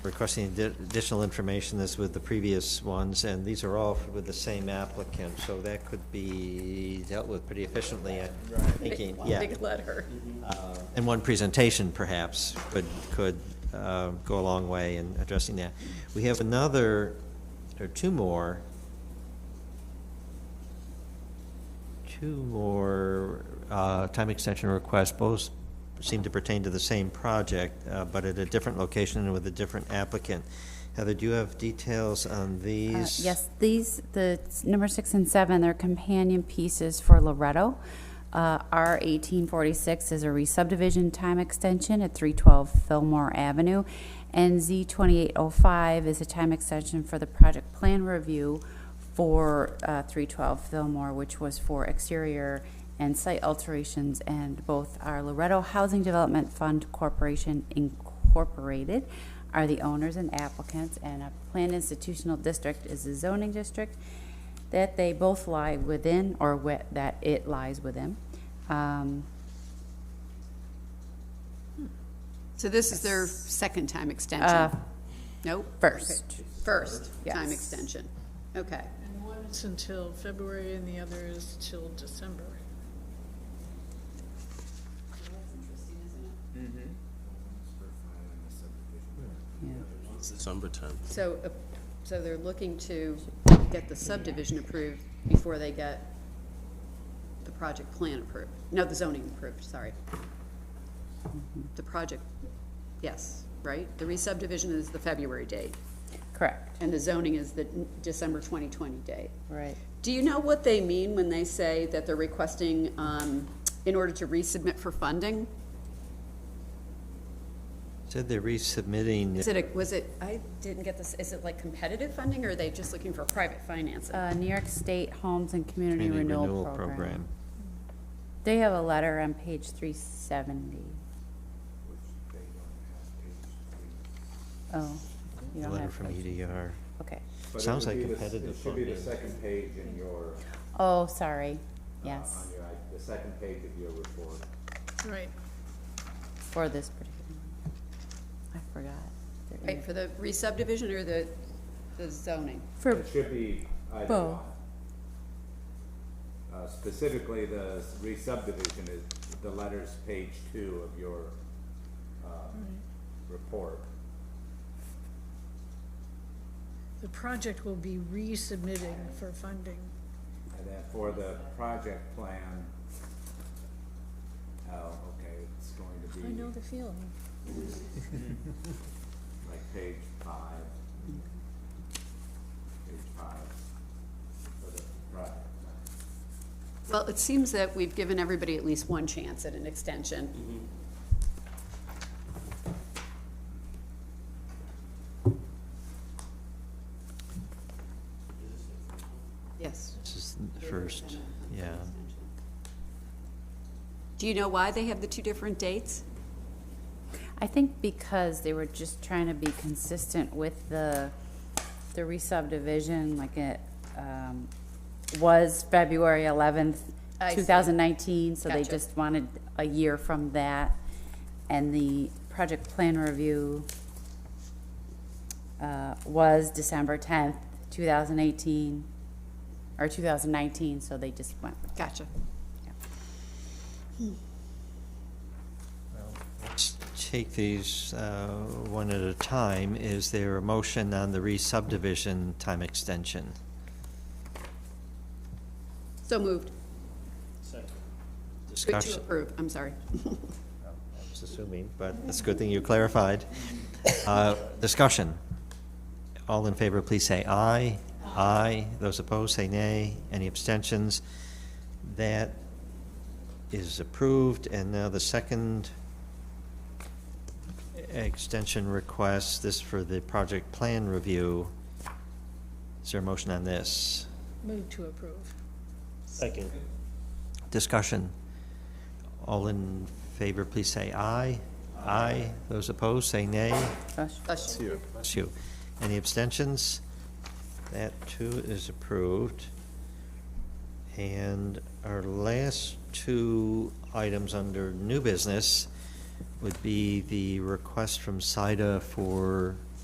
requesting addi- additional information that's with the previous ones, and these are all with the same applicant, so that could be dealt with pretty efficiently, I'm thinking, Big- yeah. Big letter. Uh, And one presentation perhaps could, could uh, go a long way in addressing that. We have another, or two more, two more uh, time extension requests, both seem to pertain to the same project, uh, but at a different location and with a different applicant. Heather, do you have details on Uh, these? Yes, these, the s- number six and seven, they're companion pieces for Loretto. Uh, R eighteen forty-six is a re-subdivision time extension at three twelve Fillmore Avenue. And Z twenty-eight oh five is a time extension for the project plan review for uh, three twelve Fillmore, which was for exterior and site alterations, and both our Loretto Housing Development Fund Corporation Incorporated are the owners and applicants, and a planned institutional district is the zoning district, that they both lie within, or whe- that it lies within. Um, So this is their second time Uh, extension? Nope? first. Okay. First time Yes. extension. Okay. And one is until February and the other is till December. Mm-hmm. December 10th. So, uh, so they're looking to get the subdivision approved before they get the project plan approved, no, the zoning approved, sorry. The project, yes, right? The re-subdivision is the February date, Correct. and the zoning is the December 2020 date. Right. Do you know what they mean when they say that they're requesting, um, in order to resubmit for funding? Said they're resubmitting. Is it, a- was it, I didn't get this, is it like competitive funding, or are they just looking for private financing? Uh, New York State Homes and Community community Renewal Program. They have a letter on page three seventy. Oh, you A don't letter have. from E page- EDR. Okay. But it Sounds would like be the- competitive It should be the funding. second page in your, uh, Oh, sorry, on yes, your, i- the second page of your report. Right. for this particular one. I forgot. They're in Right, the- for the re-subdivision or the, the zoning? For, It should be either Both. one. Uh, Specifically, the s- re-subdivision is the letters, page two of your uh, Mm-hmm. report. The project will be resubmitting for funding. And then for the project plan, oh, okay, it's going to I know be the feeling. like page five. Mm-hmm. Page five for the project plan. Well, it seems that we've given everybody at least one chance at an extension. Yes. This is the first, yeah. Do you know why they have the two different dates? I think because they were just trying to be consistent with the, the re-subdivision, like it, um, was February eleventh, I see. two thousand nineteen, so they Gotcha. just wanted a year from that. And the project plan review, uh, was December tenth, two thousand eighteen, or two thousand nineteen, so they just went with Gotcha. Let's take these uh, one at a time. Is there a motion on the re-subdivision time extension? So moved. To Discussion, approve, I'm sorry. I was assuming, but it's a good thing you clarified. Uh, Discussion. All in favor, please say aye. Aye. Those opposed, say nay. Any abstentions? That is approved, and now the second extension request, this for the project plan review. Is there a motion on this? Move to approve. Second. Discussion. All in favor, please say aye. Aye. Those opposed, say nay. Bush. Bless you. Bless you. Any abstentions? That too is approved. And our last two items under new business would be the request from SIDA for